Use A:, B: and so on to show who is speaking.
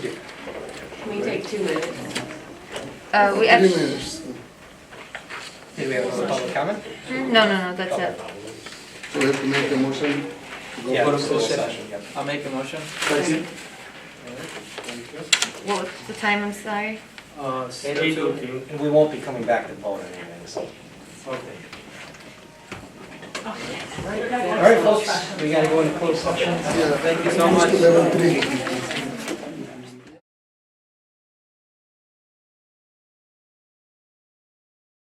A: two minutes.
B: Uh, we
C: Three
B: actually,
C: minutes.
D: Did we have another public comment?
B: no, no, no, that's it.
C: So we have to make a motion to go
D: Yeah,
C: for a
D: it's
C: closed session.
D: yep.
E: I'll make a motion.
C: Second.
B: What was the time, I'm sorry?
F: Uh, it's
D: Eight
F: eight
D: oh
F: okay.
D: And we won't be coming back to vote on anything, so.
F: Okay.
D: All right, folks, we gotta go into closed session.
C: Yeah.
D: Thank you so much.
C: Close to level three.